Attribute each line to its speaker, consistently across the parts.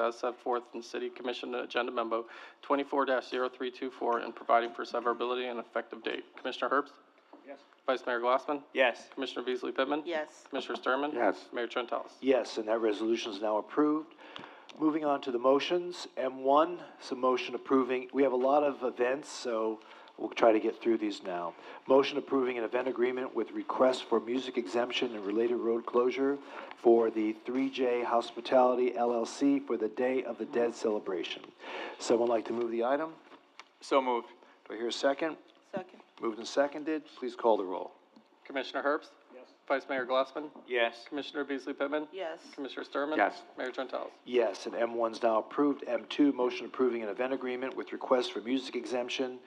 Speaker 1: as set forth in City Commission Agenda Memo twenty-four 324 and providing for severability and effective date. Commissioner Herbst?
Speaker 2: Yes.
Speaker 1: Vice Mayor Glassman?
Speaker 2: Yes.
Speaker 1: Commissioner Beasley Pittman?
Speaker 3: yes,
Speaker 1: Commissioner Sturman?
Speaker 4: Yes.
Speaker 1: Mayor Trentalles?
Speaker 5: Yes, and that resolution is now approved. Moving on to the motions, M1, it's a motion approving, we have a lot of events, so we'll try to get through these now. Motion approving an event agreement with request for music exemption and related road closure for the 3J Hospitality LLC for the Day of the Dead celebration. Someone like to move the item?
Speaker 2: So moved.
Speaker 5: Do I hear a second?
Speaker 3: second,
Speaker 5: Moved and seconded, please call the roll.
Speaker 1: Commissioner Herbst? Yes. Vice Mayor Glassman?
Speaker 2: Yes.
Speaker 1: Commissioner Beasley Pittman?
Speaker 3: yes,
Speaker 1: Commissioner Sturman?
Speaker 4: Yes.
Speaker 1: Mayor Trentalles?
Speaker 5: Yes, and M1 is now approved. M2, motion approving an event agreement with request for music exemption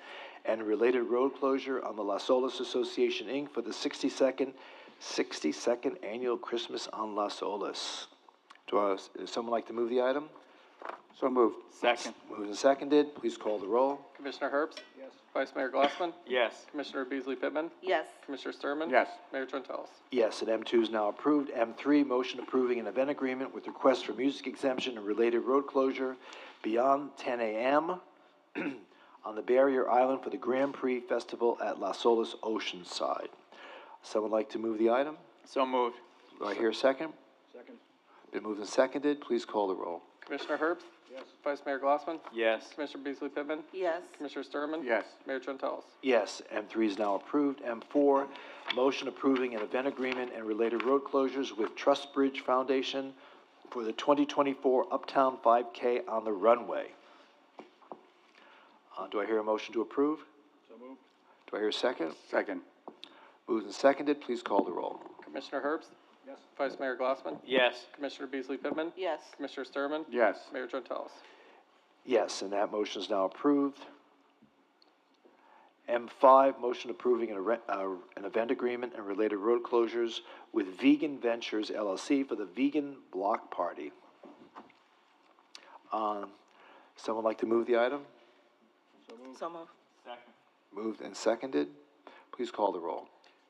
Speaker 5: and related road closure on the Las Olas Association, Inc. for the 62nd, 62nd Annual Christmas on Las Olas. Do I, is someone like to move the item?
Speaker 4: So moved.
Speaker 2: Second.
Speaker 5: Moved and seconded, please call the roll.
Speaker 1: Commissioner Herbst? Yes. Vice Mayor Glassman?
Speaker 2: Yes.
Speaker 1: Commissioner Beasley Pittman?
Speaker 3: yes,
Speaker 1: Commissioner Sturman?
Speaker 4: Yes.
Speaker 1: Mayor Trentalles?
Speaker 5: Yes, and M2 is now approved. M3, motion approving an event agreement with request for music exemption and related road closure beyond 10 a.m. on the barrier island for the Grand Prix Festival at Las Olas Oceanside. Someone like to move the item?
Speaker 2: So moved.
Speaker 5: Do I hear a second? Second. Been moved and seconded. Please call the roll.
Speaker 1: Commissioner Herbst? Yes. Vice Mayor Glassman?
Speaker 2: Yes.
Speaker 1: Commissioner Beasley Pittman?
Speaker 3: yes,
Speaker 1: Commissioner Sturman?
Speaker 4: Yes.
Speaker 1: Mayor Trentalles?
Speaker 5: Yes, M3 is now approved. M4, motion approving an event agreement and related road closures with Trust Bridge Foundation for the 2024 Uptown 5K on the runway. Uh, Do I hear a motion to approve? So moved. Do I hear a second?
Speaker 4: Second.
Speaker 5: Moved and seconded, please call the roll.
Speaker 1: Commissioner Herbst? Yes. Vice Mayor Glassman?
Speaker 2: Yes.
Speaker 1: Commissioner Beasley Pittman?
Speaker 3: yes,
Speaker 1: Commissioner Sturman?
Speaker 4: Yes.
Speaker 1: Mayor Trentalles?
Speaker 5: Yes, and that motion is now approved. M5, motion approving an, arre- uh, an event agreement and related road closures with Vegan Ventures LLC for the Vegan Block Party. Um, someone like to move the item?
Speaker 3: so moved,
Speaker 2: Second.
Speaker 5: Moved and seconded. Please call the roll.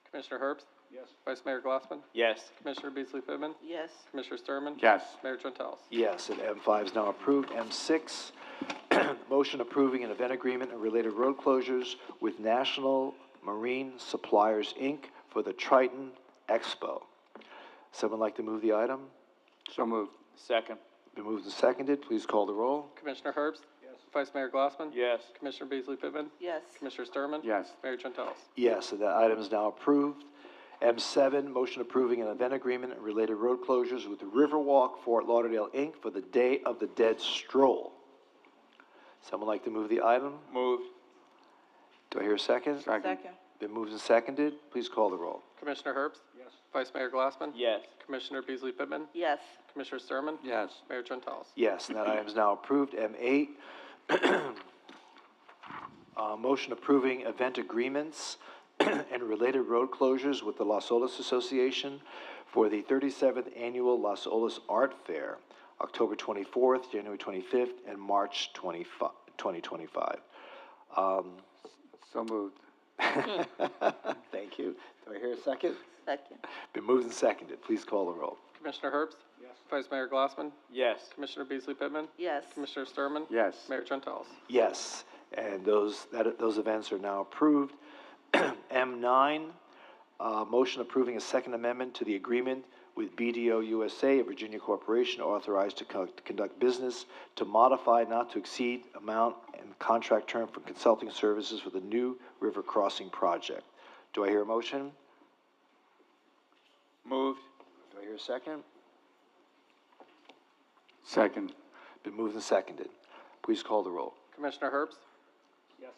Speaker 1: Commissioner Herbst? Yes. Vice Mayor Glassman?
Speaker 2: Yes.
Speaker 1: Commissioner Beasley Pittman?
Speaker 3: yes,
Speaker 1: Commissioner Sturman?
Speaker 4: Yes.
Speaker 1: Mayor Trentalles?
Speaker 5: Yes, and M5 is now approved. M6, motion approving an event agreement and related road closures with National Marine Suppliers, Inc. for the Triton Expo. Someone like to move the item?
Speaker 4: So moved.
Speaker 2: Second.
Speaker 5: Been moved and seconded, please call the roll.
Speaker 1: Commissioner Herbst? Yes. Vice Mayor Glassman?
Speaker 2: Yes.
Speaker 1: Commissioner Beasley Pittman?
Speaker 3: yes,
Speaker 1: Commissioner Sturman?
Speaker 4: Yes.
Speaker 1: Mayor Trentalles?
Speaker 5: Yes, and that item is now approved. M7, motion approving an event agreement and related road closures with Riverwalk Fort Lauderdale, Inc. for the Day of the Dead Stroll. Someone like to move the item?
Speaker 2: Moved.
Speaker 5: Do I hear a second?
Speaker 3: second,
Speaker 5: Been moved and seconded. Please call the roll.
Speaker 1: Commissioner Herbst? Yes. Vice Mayor Glassman?
Speaker 2: Yes.
Speaker 1: Commissioner Beasley Pittman?
Speaker 3: yes,
Speaker 1: Commissioner Sturman?
Speaker 4: Yes.
Speaker 1: Mayor Trentalles?
Speaker 5: Yes, and that item is now approved. M eight, uh, motion approving event agreements and related road closures with the Las Olas Association for the thirty-seventh Annual Las Olas Art Fair, October twenty-fourth, January twenty-fifth, and March 25 2025. Um,
Speaker 4: So moved.
Speaker 5: Thank you. Do I hear a second?
Speaker 3: second,
Speaker 5: Been moved and seconded. Please call the roll.
Speaker 1: Commissioner Herbst? Yes. Vice Mayor Glassman?
Speaker 2: Yes.
Speaker 1: Commissioner Beasley Pittman?
Speaker 3: yes,
Speaker 1: Commissioner Sturman?
Speaker 4: Yes.
Speaker 1: Mayor Trentalles?
Speaker 5: Yes, and those, that, those events are now approved. M nine, uh, motion approving a second amendment to the agreement with BDO USA, a Virginia corporation authorized to con- to conduct business to modify not to exceed amount and contract term for consulting services for the new river crossing project. Do I hear a motion?
Speaker 2: Moved.
Speaker 5: Do I hear a second?
Speaker 4: Second.
Speaker 5: Been moved and seconded. Please call the roll.
Speaker 1: Commissioner Herbst? Yes.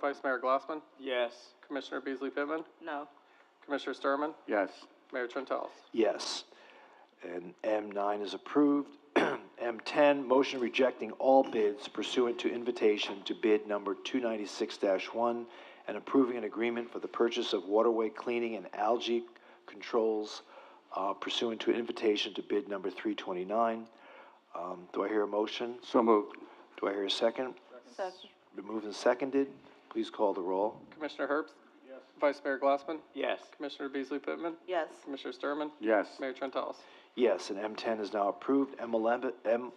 Speaker 1: Vice Mayor Glassman?
Speaker 2: Yes.
Speaker 1: Commissioner Beasley Pittman?
Speaker 3: no,
Speaker 1: Commissioner Sturman?
Speaker 4: Yes.
Speaker 1: Mayor Trentalles?
Speaker 5: Yes. And M9 is approved. M10, motion rejecting all bids pursuant to invitation to bid number 296-1 and approving an agreement for the purchase of waterway cleaning and algae controls uh, pursuant to invitation to bid number 329. Um, Do I hear a motion?
Speaker 4: So moved.
Speaker 5: Do I hear a second?
Speaker 3: second,
Speaker 5: Been moved and seconded. Please call the roll.
Speaker 1: Commissioner Herbst? Yes. Vice Mayor Glassman?
Speaker 2: Yes.
Speaker 1: Commissioner Beasley Pittman?
Speaker 3: yes.
Speaker 1: Commissioner Sturman?
Speaker 4: Yes.
Speaker 1: Mayor Trentalles?
Speaker 5: Yes, and M10 is now approved. M11, M11